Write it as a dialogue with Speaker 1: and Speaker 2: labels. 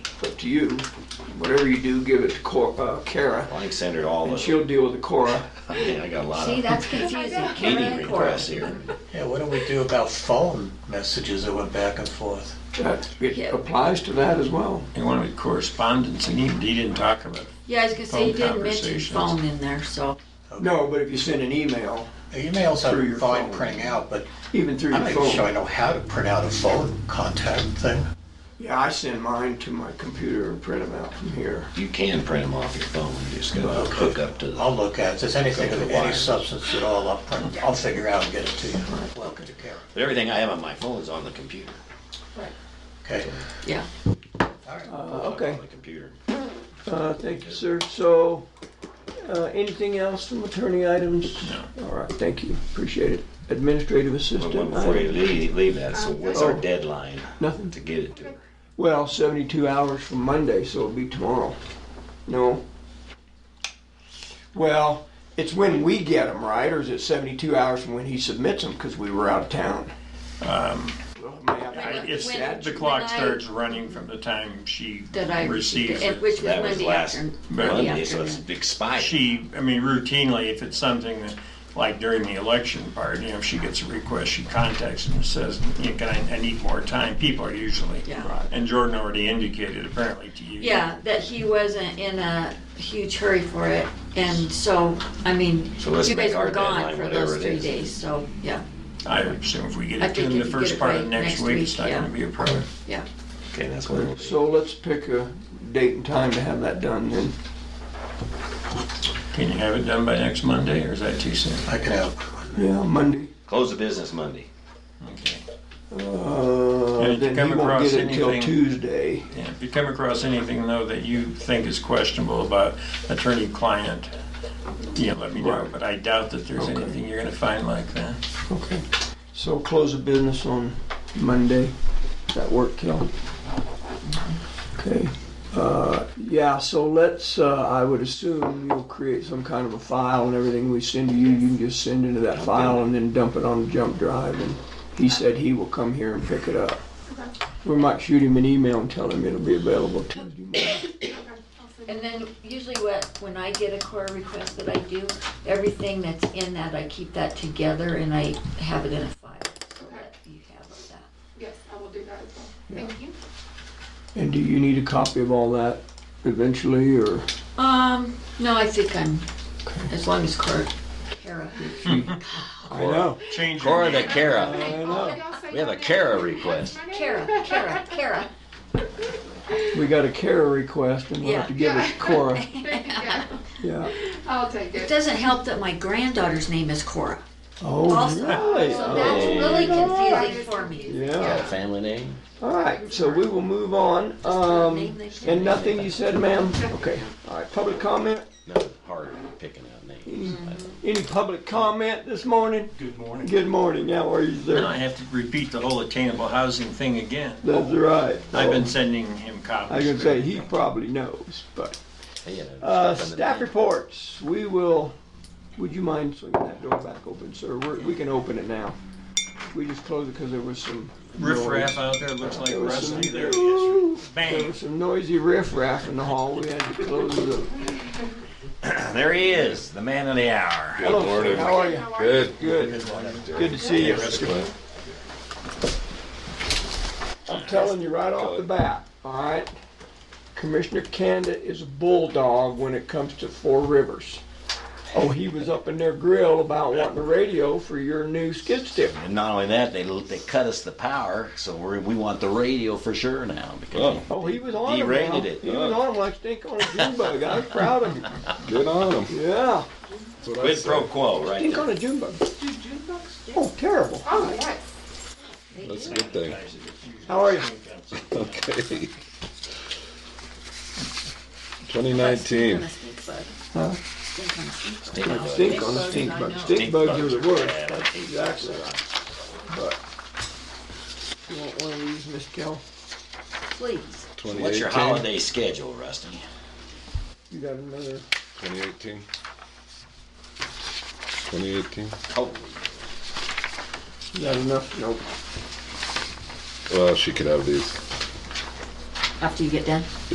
Speaker 1: to you. Whatever you do, give it to Cor- uh, Kara,
Speaker 2: Well, I can send her all
Speaker 1: and
Speaker 2: of
Speaker 1: she'll
Speaker 2: it.
Speaker 1: deal with the Cora.
Speaker 2: Man, I got a lot
Speaker 3: See,
Speaker 2: of
Speaker 3: that's confusing.
Speaker 2: meeting
Speaker 3: Karen Cora.
Speaker 2: requests here.
Speaker 4: Yeah, what do we do about phone messages that went back and forth?
Speaker 1: That
Speaker 3: Yeah.
Speaker 1: it applies to that as well.
Speaker 5: And one of the correspondence, and he, he didn't talk about it.
Speaker 3: Yeah, I was gonna say, you
Speaker 5: Phone
Speaker 3: didn't mention
Speaker 5: conversations.
Speaker 3: phone in there, so.
Speaker 1: No, but if you send an email,
Speaker 4: Emails
Speaker 1: Through
Speaker 4: are
Speaker 1: your
Speaker 4: fine
Speaker 1: phone.
Speaker 4: printing out, but
Speaker 1: even through
Speaker 4: I'm
Speaker 1: your
Speaker 4: not even sure I
Speaker 1: phone.
Speaker 4: know how to print out a phone contact thing.
Speaker 1: Yeah, I send mine to my computer and print them out from here.
Speaker 2: You can print them off your phone, you just gotta hook up to
Speaker 4: I'll
Speaker 2: the,
Speaker 4: look at it. If there's anything
Speaker 2: Go to
Speaker 4: of
Speaker 2: the
Speaker 4: any
Speaker 2: wires.
Speaker 4: substance at all, I'll print, I'll figure out and get it to you. Welcome to Karen.
Speaker 2: but everything I have on my phone is on the computer.
Speaker 4: Okay,
Speaker 3: Yeah.
Speaker 4: all right.
Speaker 1: Uh, okay.
Speaker 2: On the computer.
Speaker 1: Uh, thank you, sir. So, uh, anything else from attorney items? No. All right, thank you. Appreciate it. Administrative
Speaker 2: But one
Speaker 1: assistant.
Speaker 2: before you
Speaker 1: item?
Speaker 2: leave, leave that, so what's our
Speaker 1: Oh.
Speaker 2: deadline
Speaker 1: Nothing.
Speaker 2: to get it to her?
Speaker 1: Well, seventy-two hours from Monday, so it'll be tomorrow. No? Well, it's when we get them, right? Or is it seventy-two hours from when he submits them because we were out of town?
Speaker 5: Um,
Speaker 1: Well, it may have to-
Speaker 5: I- It's,
Speaker 3: When-
Speaker 5: the clock
Speaker 3: when I-
Speaker 5: starts running from the time she
Speaker 3: That I,
Speaker 5: receives
Speaker 3: and
Speaker 5: it.
Speaker 3: which was
Speaker 2: That was
Speaker 3: Monday
Speaker 2: last
Speaker 3: afternoon.
Speaker 2: Monday,
Speaker 3: Monday
Speaker 2: so it's
Speaker 3: afternoon.
Speaker 2: expired.
Speaker 5: She, I mean, routinely, if it's something that, like during the election part, you know, if she gets a request, she contacts and says, you know, can I, I need more time, people are usually.
Speaker 3: Yeah.
Speaker 5: And Jordan already indicated apparently to you.
Speaker 3: Yeah, that he wasn't in a huge hurry for it, and so, I mean,
Speaker 2: So let's
Speaker 3: you guys
Speaker 2: make our
Speaker 3: were gone
Speaker 2: deadline
Speaker 3: for
Speaker 2: whatever
Speaker 3: those
Speaker 2: it
Speaker 3: three
Speaker 2: is.
Speaker 3: days, so, yeah,
Speaker 5: I would assume if we get
Speaker 3: I
Speaker 5: it to
Speaker 3: think
Speaker 5: them
Speaker 3: if you
Speaker 5: the
Speaker 3: get
Speaker 5: first
Speaker 3: it
Speaker 5: part
Speaker 3: by
Speaker 5: of next
Speaker 3: next
Speaker 5: week,
Speaker 3: week,
Speaker 5: it's not
Speaker 3: yeah.
Speaker 5: gonna be a problem.
Speaker 3: yeah.
Speaker 2: Okay, that's what it'll be.
Speaker 1: So let's pick a date and time to have that done then.
Speaker 5: Can you have it done by next Monday, or is that too soon?
Speaker 4: I can have,
Speaker 1: Yeah, Monday.
Speaker 2: Close the business Monday.
Speaker 5: Okay.
Speaker 1: Uh,
Speaker 5: if you
Speaker 1: then
Speaker 5: come
Speaker 1: he won't
Speaker 5: across
Speaker 1: get it till
Speaker 5: anything-
Speaker 1: Tuesday.
Speaker 5: Yeah, if you come across anything though that you think is questionable about attorney-client, you know, let me know,
Speaker 1: Right.
Speaker 5: but I doubt that there's
Speaker 1: Okay.
Speaker 5: anything you're gonna find like that.
Speaker 1: Okay. So close the business on Monday. Does that work, Kel? Okay. Uh, yeah, so let's, uh, I would assume you'll create some kind of a file and everything we send to you, you can just send into that file and then dump it on the jump drive. And he said he will come here and pick it up. We might shoot him an email and tell him it'll be available Tuesday morning.
Speaker 3: And then usually what, when I get a core request that I do, everything that's in that, I keep that together and I have it in a file, so that you have that.
Speaker 6: Yes, I will do that as well. Thank you.
Speaker 1: And do you need a copy of all that eventually, or?
Speaker 3: Um, no, I think I'm, as long as Cora, Kara,
Speaker 1: I know.
Speaker 5: Change your
Speaker 2: Cora
Speaker 5: name.
Speaker 2: the Kara,
Speaker 6: Hey, all of y'all say
Speaker 2: we have a
Speaker 6: your name.
Speaker 2: Kara request.
Speaker 6: My name?
Speaker 3: Kara, Kara, Kara.
Speaker 1: We got a care request and we'll have to give it to Cora.
Speaker 6: Thank you, yeah.
Speaker 1: Yeah.
Speaker 6: I'll take
Speaker 3: It
Speaker 6: it.
Speaker 3: doesn't help that my granddaughter's name is Cora.
Speaker 1: Oh,
Speaker 3: Also,
Speaker 1: really?
Speaker 3: So
Speaker 1: Oh.
Speaker 3: that's really confusing
Speaker 6: Right.
Speaker 3: for me.
Speaker 2: got
Speaker 1: Yeah.
Speaker 2: a family name?
Speaker 1: All right, so we will move on. Um,
Speaker 3: Name they should-
Speaker 1: and nothing you said, ma'am? Okay. All right, public comment?
Speaker 2: No, hard picking out names. I don't-
Speaker 1: Any public comment this morning?
Speaker 5: Good morning.
Speaker 1: Good morning. How are you,
Speaker 5: Now I
Speaker 1: sir?
Speaker 5: have to repeat the whole attainable housing thing again.
Speaker 1: That's right. Oh,
Speaker 5: I've been sending him copies.
Speaker 1: I can say he probably knows, but,
Speaker 2: Hey, you know,
Speaker 1: uh,
Speaker 2: stuff in the
Speaker 1: staff
Speaker 2: name.
Speaker 1: reports. We will, would you mind swinging that door back open, sir? We're, we can open it now. We just closed it because there was some
Speaker 5: Riff raff
Speaker 1: noise.
Speaker 5: out there looks like
Speaker 1: There was some-
Speaker 5: rusty, there he is.
Speaker 1: There
Speaker 5: Bang,
Speaker 1: was some noisy riffraff in the hall. We had to close it up.
Speaker 2: Uh, There he is, the man of the hour.
Speaker 1: Hello, sir. How are you?
Speaker 7: Good.
Speaker 1: Good. Good to see you. I'm telling you right off the bat, all right? Commissioner Canada is a bulldog when it comes to Four Rivers. Oh, he was up in their grill about wanting a radio for your new skid steer.
Speaker 2: And not only that, they they cut us the power, so we we want the radio for sure now because
Speaker 7: Oh.
Speaker 1: Oh, he was on him.
Speaker 2: Derated
Speaker 1: now.
Speaker 2: it.
Speaker 1: He was on him like stink on a June bug. I was proud of him.
Speaker 7: Good on them.
Speaker 1: Yeah,
Speaker 7: That's what I
Speaker 2: quid pro
Speaker 7: said.
Speaker 2: quo, right?
Speaker 1: stink
Speaker 2: there.
Speaker 1: on a June bug.
Speaker 6: Do June books?
Speaker 1: Oh, terrible.
Speaker 6: Oh, yes.
Speaker 7: That's a good thing.
Speaker 1: How are you?
Speaker 7: Okay. 2019.
Speaker 1: Huh?
Speaker 2: Stink
Speaker 1: Like
Speaker 2: bug.
Speaker 1: stink on a stink bug. Stink bugs are the worst.
Speaker 2: bad.
Speaker 1: That's exactly right. But you want one of these, Miss Kell?
Speaker 3: Please.
Speaker 7: 2018.
Speaker 2: What's your holiday schedule, Rusty?
Speaker 1: You got another?
Speaker 7: 2018. 2018.
Speaker 2: Holy,
Speaker 1: You got enough? Nope.
Speaker 7: Well, she could have these.
Speaker 3: After you get done.